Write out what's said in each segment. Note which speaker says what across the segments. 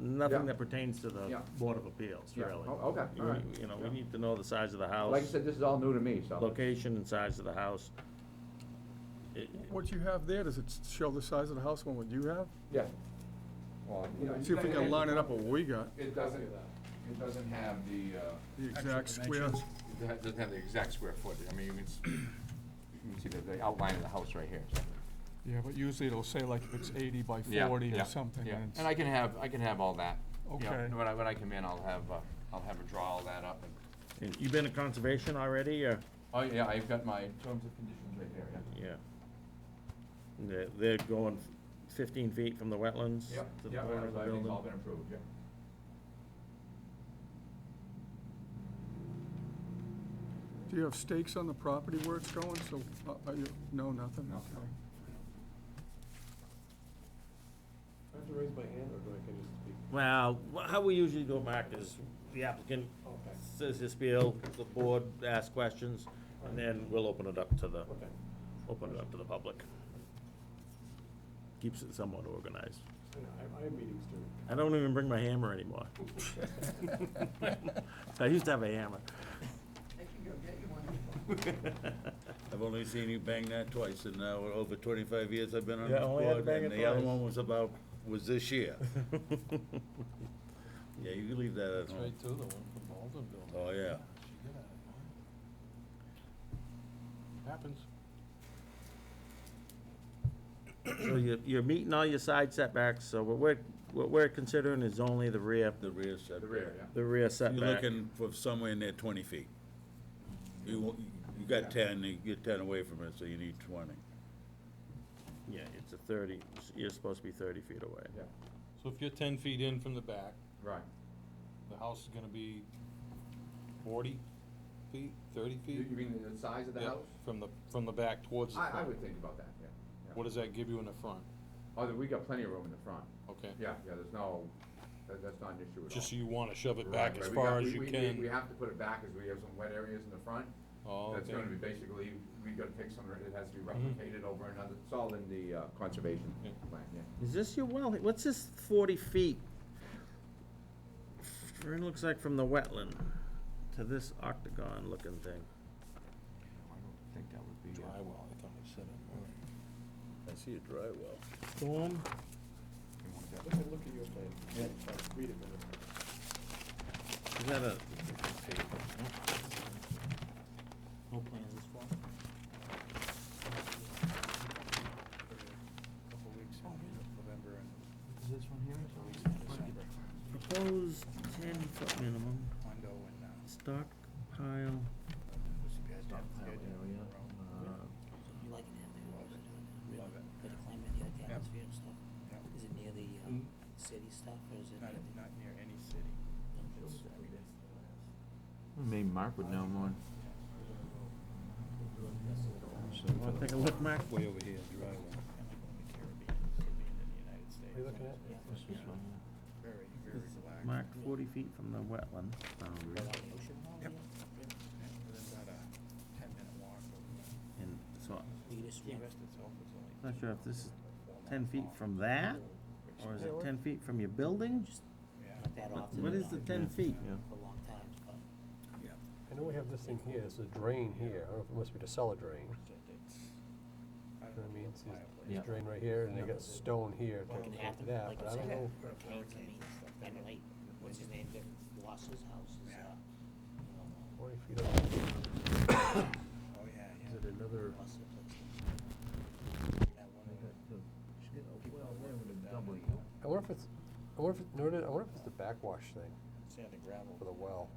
Speaker 1: nothing
Speaker 2: Yeah.
Speaker 1: that pertains to the
Speaker 2: Yeah.
Speaker 1: Board of Appeals,
Speaker 2: Yeah.
Speaker 1: really.
Speaker 2: Oh, okay.
Speaker 1: You-
Speaker 2: All right.
Speaker 1: You know, we
Speaker 2: Yeah.
Speaker 1: need to know the size of the
Speaker 2: Like I
Speaker 1: house,
Speaker 2: said, this is all new to me, so.
Speaker 1: location and size of the house. It-
Speaker 3: What you have there, does it show the size of the house on what you have?
Speaker 2: Yeah. Well, you know,
Speaker 3: See if we can line it up with what we got,
Speaker 2: It doesn't, it doesn't have the, uh,
Speaker 3: the exact square.
Speaker 2: it ha- doesn't have the exact square footage. I mean, you can, s- you can see the, the outline of the house right here, so.
Speaker 3: Yeah, but usually it'll say like if it's eighty by
Speaker 2: Yeah,
Speaker 3: forty
Speaker 2: yeah,
Speaker 3: or something.
Speaker 2: yeah.
Speaker 3: and it's-
Speaker 2: And I can have, I can have all that. you know,
Speaker 3: Okay.
Speaker 2: When I, when I come in, I'll have, uh, I'll have her draw all that up and,
Speaker 1: it- You been to conservation already, or?
Speaker 2: oh, yeah, I've got my terms of conditions right there, yeah.
Speaker 1: Yeah. They're, they're going fifteen feet from the wetlands
Speaker 2: Yep,
Speaker 1: to the
Speaker 2: yep,
Speaker 1: corner of the
Speaker 2: everything's all
Speaker 1: building.
Speaker 2: been approved, yeah.
Speaker 3: Do you have stakes on the property where it's going, so, uh, are you, no, nothing?
Speaker 2: No.
Speaker 3: Okay.
Speaker 4: I have to raise my hand or do I can just speak?
Speaker 1: Well, wha- how we usually go, Mark, is the applicant
Speaker 4: Okay.
Speaker 1: says his spiel, the board asks questions, and then we'll open it up to the,
Speaker 4: Okay.
Speaker 1: open it up to the public. Keeps it somewhat organized.
Speaker 4: I know, I- I have meetings too.
Speaker 1: I don't even bring my hammer anymore. I used to have a hammer.
Speaker 5: I can go get you one.
Speaker 6: I've only seen you bang that twice in uh, over twenty-five years I've been on
Speaker 1: Yeah,
Speaker 6: this
Speaker 1: only had to
Speaker 6: board,
Speaker 1: bang
Speaker 6: and
Speaker 1: it
Speaker 6: the other
Speaker 1: twice.
Speaker 6: one was about, was this year. Yeah, you can leave that at home.
Speaker 4: too, the one from Aldenville.
Speaker 6: Oh, yeah.
Speaker 4: Happens.
Speaker 1: So you're, you're meeting all your side setbacks, so what we're, what we're considering is only the rear,
Speaker 6: The rear setback.
Speaker 2: The rear, yeah.
Speaker 1: the rear
Speaker 6: You're
Speaker 1: setback.
Speaker 6: looking for somewhere near twenty feet. You, won't- you got ten, you get ten away from it, so you need twenty.
Speaker 1: Yeah, it's a thirty, you're supposed to be thirty feet away.
Speaker 2: Yeah,
Speaker 7: So if you're ten feet in from the back,
Speaker 2: right.
Speaker 7: the house is gonna be forty feet, thirty
Speaker 2: You,
Speaker 7: feet?
Speaker 2: you mean the size of the
Speaker 7: Yeah,
Speaker 2: house?
Speaker 7: From the, from the back towards the front?
Speaker 2: I, I would think about that, yeah. yeah.
Speaker 7: What does that give you in the front?
Speaker 2: Oh, then we got plenty of room in the front.
Speaker 7: Okay?
Speaker 2: Yeah, yeah, there's no, that, that's not an issue at all.
Speaker 7: Just so you wanna shove it
Speaker 2: Right,
Speaker 7: back
Speaker 2: right,
Speaker 7: as
Speaker 2: we
Speaker 7: far
Speaker 2: got-
Speaker 7: as
Speaker 2: we-
Speaker 7: you
Speaker 2: we- we-
Speaker 7: can?
Speaker 2: We have to put it back, as we have some wet areas in the front.
Speaker 7: Oh,
Speaker 2: That's
Speaker 7: okay. Mm-hmm.
Speaker 2: gonna be basically, we gotta pick some, it has to be replicated over another, it's all in the, uh, conservation
Speaker 7: Yeah.
Speaker 2: plan, yeah.
Speaker 1: Is this your well, what's this forty feet? It looks like from the wetland to this octagon looking thing.
Speaker 2: I don't think that would be.
Speaker 7: Dry well, I thought I said it.
Speaker 6: I see a dry well.
Speaker 1: Boom.
Speaker 4: Look at, look at your plan. Read it for me.
Speaker 1: Is that a,
Speaker 7: No plan as far?
Speaker 4: Couple weeks in November and.
Speaker 7: Is this one here?
Speaker 4: couple weeks in December.
Speaker 1: proposed ten foot minimum,
Speaker 4: Hondo and, uh,
Speaker 1: stock pile,
Speaker 4: this guy's down the idea.
Speaker 5: You like it out there?
Speaker 4: Love it. Love it.
Speaker 5: Better climate, you like the
Speaker 4: Yeah.
Speaker 5: atmosphere and stuff.
Speaker 4: Yeah.
Speaker 5: Is it near the, um, city stuff or is it?
Speaker 4: Not,
Speaker 5: near the-
Speaker 4: not near any city. It's, I mean, it's.
Speaker 2: Maybe Mark would know more.
Speaker 1: wanna take a look, Mark?
Speaker 7: Way over here, dry well.
Speaker 4: kind of in the Caribbean, could be in the United States.
Speaker 5: Are you looking at? Yeah.
Speaker 4: It's Very, very relaxed.
Speaker 1: Mark forty feet from the wetland.
Speaker 5: Right on the ocean hall,
Speaker 4: Yep.
Speaker 5: yeah?
Speaker 4: And then about a ten-minute walk over there.
Speaker 1: And so,
Speaker 5: You can just
Speaker 4: Key
Speaker 5: walk
Speaker 4: West itself is only.
Speaker 1: Not sure if this is
Speaker 4: four
Speaker 1: ten
Speaker 4: miles
Speaker 1: feet
Speaker 4: long,
Speaker 1: from that,
Speaker 4: which
Speaker 1: or is
Speaker 4: is-
Speaker 1: it ten feet from your building?
Speaker 4: Yeah.
Speaker 5: Not that often.
Speaker 1: What
Speaker 5: you
Speaker 1: is
Speaker 5: know,
Speaker 1: the ten feet?
Speaker 5: For a long time, but.
Speaker 4: Yeah.
Speaker 8: I know we have this thing here, it's a drain here, I don't know if it must be the cellar drain,
Speaker 4: So it's- I
Speaker 8: you
Speaker 4: don't
Speaker 8: know what I
Speaker 4: know,
Speaker 8: mean?
Speaker 4: a
Speaker 8: It's just-
Speaker 4: fireplace.
Speaker 8: There's a drain right here, and they got stone here to
Speaker 5: Like an
Speaker 8: connect to
Speaker 5: athlete,
Speaker 8: that,
Speaker 5: like
Speaker 8: but
Speaker 5: it's
Speaker 8: I don't
Speaker 5: like-
Speaker 8: know.
Speaker 4: Put up
Speaker 5: Parents,
Speaker 4: barricades
Speaker 5: I mean,
Speaker 4: and stuff
Speaker 5: and
Speaker 4: there.
Speaker 5: like, what's his name, Dick Ross's house is,
Speaker 4: Yeah.
Speaker 5: uh, you know,
Speaker 8: Forty feet up,
Speaker 4: Oh, yeah, yeah.
Speaker 8: is it another,
Speaker 5: Ross's place.
Speaker 1: Uh,
Speaker 4: That one in the- people live in down in,
Speaker 8: I wonder if it's, I wonder if, it- no, no, I wonder if it's the backwash thing
Speaker 4: uh, Sand and gravel.
Speaker 8: for the well.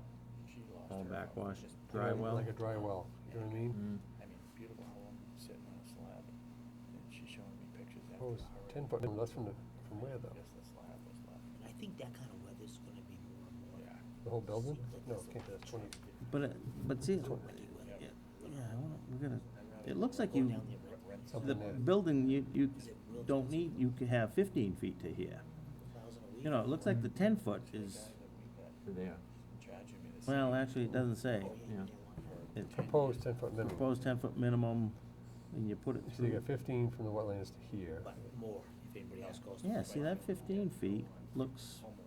Speaker 4: She lost
Speaker 1: All
Speaker 4: her house.
Speaker 1: backwash,
Speaker 4: Just-
Speaker 1: dry
Speaker 8: Like-
Speaker 1: well. Mm-hmm.
Speaker 8: Like a dry well, you know what I mean?
Speaker 4: I mean, beautiful home, sitting on a slab, and she's showing me pictures
Speaker 1: Mm.
Speaker 4: after
Speaker 8: Oh,
Speaker 4: the
Speaker 8: it's
Speaker 4: hurricane.
Speaker 8: ten foot, that's from the, from where though?
Speaker 4: Yes, the slab was left.
Speaker 5: And I think that kind of weather's gonna be more and more.
Speaker 4: Yeah.
Speaker 8: The whole building?
Speaker 5: Seems like
Speaker 8: No,
Speaker 5: it's
Speaker 8: it can't be, that's twenty,
Speaker 1: But, it- but see, it-
Speaker 5: tricky weather.
Speaker 1: yeah, I wanna- we're gonna, it looks
Speaker 5: Go
Speaker 1: like you,
Speaker 5: down there, right?
Speaker 4: Rent some
Speaker 1: the
Speaker 8: something there.
Speaker 1: building, you, you don't need, you could have fifteen feet to here.
Speaker 5: Thousand a week.
Speaker 1: You know, it looks like the ten foot
Speaker 4: guy
Speaker 1: is,
Speaker 4: that we got
Speaker 2: There.
Speaker 4: charging me the same
Speaker 1: well, actually, it doesn't say.
Speaker 5: Oh, yeah,
Speaker 2: Yeah.
Speaker 5: they want her.
Speaker 1: It
Speaker 8: proposed ten foot minimum,
Speaker 1: proposed ten foot minimum, and you put it
Speaker 8: so you
Speaker 1: through.
Speaker 8: got fifteen from the wetlands to here.
Speaker 5: But more, if anybody else goes. to
Speaker 1: Yeah,
Speaker 5: the
Speaker 1: see,
Speaker 5: right
Speaker 1: that
Speaker 5: one.
Speaker 1: fifteen feet looks
Speaker 4: homeowner